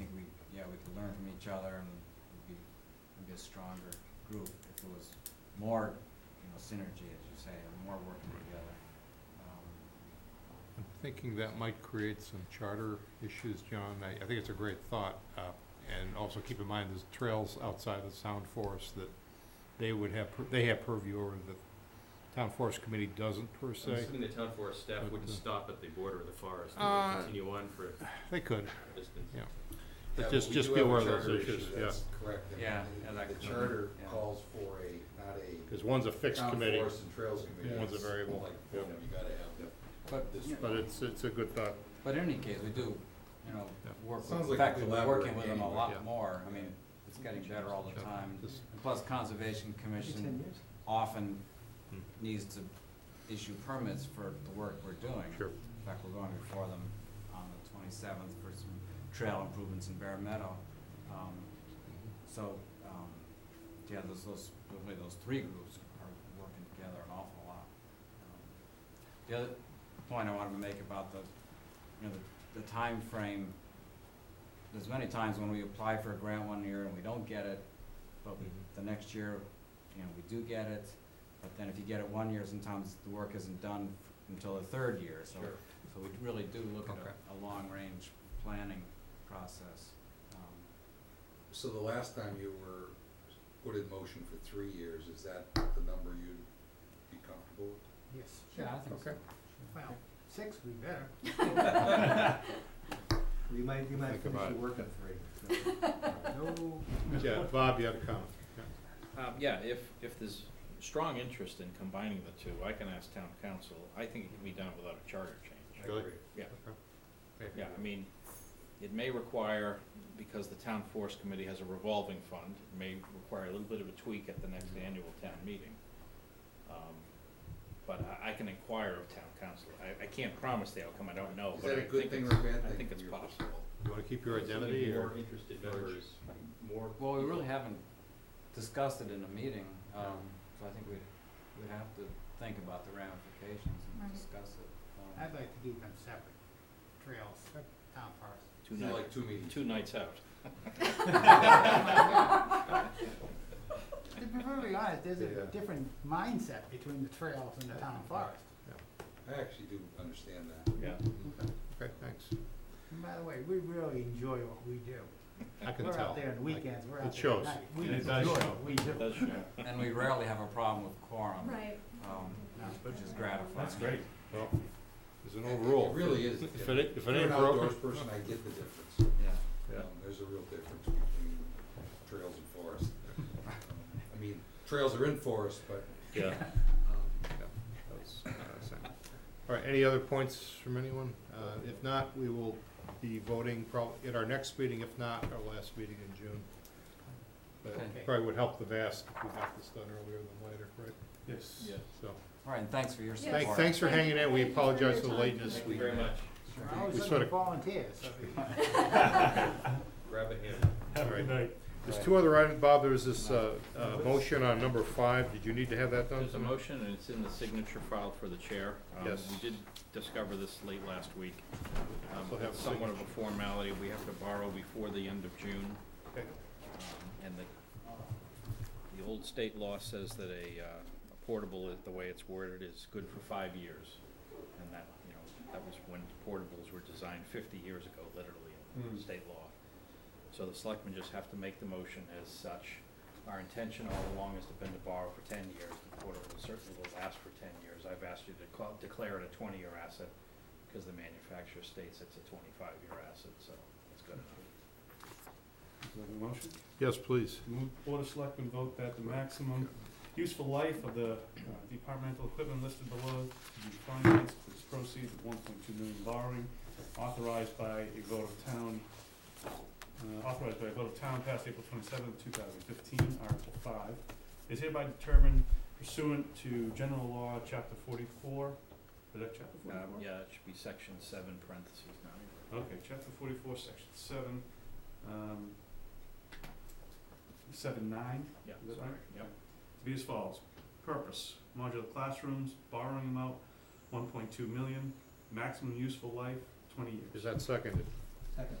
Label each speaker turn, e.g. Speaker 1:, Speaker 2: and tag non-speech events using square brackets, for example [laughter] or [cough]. Speaker 1: that we could learn from each other and we'd be, we'd be a stronger group if it was more, you know, synergy, as you say, and more working together. Um,
Speaker 2: I'm thinking that might create some charter issues, John. I, I think it's a great thought. uh, And also keep in mind, there's trails outside the Sound Forest that they would have, pur- they have purview over that Town Forest Committee doesn't per
Speaker 3: I'm
Speaker 2: se.
Speaker 3: assuming the town forest staff
Speaker 2: But,
Speaker 3: wouldn't
Speaker 2: uh,
Speaker 3: stop at the border of the forest
Speaker 2: Uh,
Speaker 3: and would continue on for a
Speaker 2: They could.
Speaker 3: distance.
Speaker 2: Yeah.
Speaker 4: Yeah,
Speaker 2: But
Speaker 4: but
Speaker 2: just,
Speaker 4: we
Speaker 2: just
Speaker 4: do
Speaker 2: be
Speaker 4: have a
Speaker 2: aware of those
Speaker 4: charter
Speaker 2: issues,
Speaker 4: issue,
Speaker 2: yeah.
Speaker 4: That's correct. and
Speaker 1: Yeah,
Speaker 4: the-
Speaker 1: I like
Speaker 4: The
Speaker 1: the-
Speaker 4: charter
Speaker 1: yeah.
Speaker 4: calls for a, not a
Speaker 2: Because one's a fixed
Speaker 4: town
Speaker 2: committee,
Speaker 4: forest and trails committee.
Speaker 2: One's a
Speaker 4: It's
Speaker 2: variable,
Speaker 4: like,
Speaker 2: yeah.
Speaker 4: you know, You gotta have
Speaker 1: But,
Speaker 4: this.
Speaker 1: you know,
Speaker 2: but it's, it's a good thought.
Speaker 1: but in any case, we do, you know,
Speaker 2: Yeah.
Speaker 1: work, with-
Speaker 4: Sounds
Speaker 1: in
Speaker 4: like
Speaker 1: fact, we're working
Speaker 4: collaborating
Speaker 1: with them a
Speaker 4: anyway.
Speaker 2: Yeah.
Speaker 1: lot more. I mean, it's getting better all the time.
Speaker 2: Just-
Speaker 1: And plus Conservation Commission often
Speaker 2: Hmm.
Speaker 1: needs to issue permits for the work we're doing.
Speaker 2: Sure.
Speaker 1: In fact, we're going before them on the twenty-seventh for some trail improvements in Bear Meadow. Um, so, um, yeah, those, those, really those three groups are working together an awful lot. Um, The other point I wanted to make about the, you know, the, the timeframe, there's many times when we apply for a grant one year and we don't get it, but we,
Speaker 2: Mhm.
Speaker 1: the next year, you know, we do get it. But then if you get it one year, sometimes the work isn't done until the third year, so,
Speaker 2: Sure.
Speaker 1: so we really do look at
Speaker 2: Okay.
Speaker 1: a, a long-range planning process. Um,
Speaker 4: So the last time you were put in motion for three years, is that the number you'd be comfortable with?
Speaker 5: Yes.
Speaker 1: Yeah, I think so.
Speaker 2: Okay.
Speaker 5: Well, six would be better.
Speaker 4: [laughs]
Speaker 5: We might, we might
Speaker 2: Think
Speaker 5: finish
Speaker 2: about
Speaker 5: the
Speaker 2: it.
Speaker 5: work in three. No,
Speaker 2: [laughs] Yeah, Bob, you have a comment? Yeah.
Speaker 6: Um, yeah, if, if there's strong interest in combining the two, I can ask town council, I think it can be done without a charter change.
Speaker 2: Really?
Speaker 6: Yeah.
Speaker 2: Okay.
Speaker 6: Yeah, I mean, it may require, because the town forest committee has a revolving fund, it may require a little bit of a tweak at the next
Speaker 4: Mm-hmm.
Speaker 6: annual town meeting. Um, But I, I can inquire of town council, I, I can't promise the outcome, I don't know,
Speaker 4: Is
Speaker 6: Oh, but
Speaker 4: that
Speaker 6: I
Speaker 4: a good
Speaker 6: think
Speaker 4: thing
Speaker 6: it's,
Speaker 4: or a
Speaker 6: I
Speaker 4: bad thing
Speaker 6: think
Speaker 4: from
Speaker 6: it's
Speaker 4: your
Speaker 6: possible.
Speaker 2: You want to keep your identity
Speaker 3: More
Speaker 2: or?
Speaker 3: interested voters, more.
Speaker 1: Well, we really
Speaker 3: people.
Speaker 1: haven't discussed it in a meeting, um, so I think we'd, we'd have to think about the ramifications and
Speaker 7: Right.
Speaker 1: discuss it. um,
Speaker 5: I'd like to do them separate, trails, town forest.
Speaker 6: Two
Speaker 4: You
Speaker 6: nights,
Speaker 4: like two meetings?
Speaker 6: two nights out.
Speaker 5: To be perfectly honest, there's
Speaker 2: Yeah.
Speaker 5: a different mindset between the trails and the town forest.
Speaker 4: I actually do understand that.
Speaker 6: Yeah.
Speaker 2: Okay, thanks.
Speaker 5: And by the way, we really enjoy what we do.
Speaker 2: I can tell.
Speaker 5: We're out there on
Speaker 2: I-
Speaker 5: weekends, we're
Speaker 2: it
Speaker 5: out there at
Speaker 2: shows.
Speaker 5: night. We
Speaker 6: It
Speaker 5: enjoy
Speaker 6: does show.
Speaker 5: what we do.
Speaker 6: It does show.
Speaker 1: Um, And we rarely have a problem with quorum,
Speaker 7: Right.
Speaker 1: um,
Speaker 5: No.
Speaker 1: which is gratifying.
Speaker 2: Well, there's an overrule.
Speaker 4: It really is.
Speaker 2: If it, if
Speaker 4: If you're
Speaker 2: it ain't
Speaker 4: an
Speaker 2: [laughs]
Speaker 4: outdoors
Speaker 2: broken.
Speaker 4: person, I get the difference.
Speaker 1: Yeah.
Speaker 2: Yeah.
Speaker 4: Um, There's a real difference between trails and forest. Um, I mean, trails are in forest, but
Speaker 6: Yeah.
Speaker 4: um,
Speaker 2: That was, uh, same. All right, any other points from anyone? Uh, If not, we will be voting probably at our next meeting, if not our last meeting in June. But
Speaker 1: Okay.
Speaker 2: it probably would help the vast if we got this done earlier than later, right?
Speaker 6: Yeah.
Speaker 2: So,
Speaker 1: All right, and thanks for your
Speaker 7: Yes.
Speaker 1: support.
Speaker 2: thank- thanks for hanging in.
Speaker 7: Thank
Speaker 2: We
Speaker 7: you for your
Speaker 2: apologize for the
Speaker 7: time.
Speaker 2: lateness.
Speaker 3: Thank
Speaker 2: We
Speaker 3: you very much,
Speaker 5: We're always
Speaker 2: We
Speaker 5: looking
Speaker 2: sorta-
Speaker 5: for volunteers, so if you
Speaker 3: grab a hand.
Speaker 2: Have There's two other items. Bob, there was this uh, uh, motion on number five. Did you need to have that done?
Speaker 6: There's a motion, and it's in the signature file for the chair. Um,
Speaker 2: Yes.
Speaker 6: We did discover this late last week. Um,
Speaker 2: We'll have
Speaker 6: It's somewhat of a formality, we have to borrow before the end of June,
Speaker 2: Okay.
Speaker 6: um, and the, the old state law says that a uh, a portable, is- the way it's worded, is good for five years. And that, you know, that was when portables were designed fifty years ago, literally, in
Speaker 4: Hmm.
Speaker 6: state law. So the selectmen just have to make the motion as such. Our intention all along has been to borrow for ten years, the portable certainly will last for ten years. I've asked you to call, declare it a twenty-year asset, because the manufacturer states it's a twenty-five year asset, so it's good enough.
Speaker 8: motion?
Speaker 2: Yes, please.
Speaker 8: Move Board of Selectmen vote that the maximum useful life of the uh, departmental equipment listed below to be financed with proceeds of one point two million borrowing authorized by a vote of town, uh, authorized by a vote of town passed April twenty-seventh, two thousand fifteen, Article five, is hereby determined pursuant to General Law, Chapter forty-four, is that Chapter forty-four?
Speaker 6: Um, yeah, it should be section seven parentheses nine.
Speaker 8: Okay, chapter forty-four, section seven, um, seven nine,
Speaker 6: Yeah,
Speaker 8: Is that
Speaker 6: sorry,
Speaker 8: right?
Speaker 6: yeah.
Speaker 8: to be as follows. Purpose, modular classrooms, borrowing amount, one point two million, maximum useful life, twenty years.
Speaker 2: Is that seconded?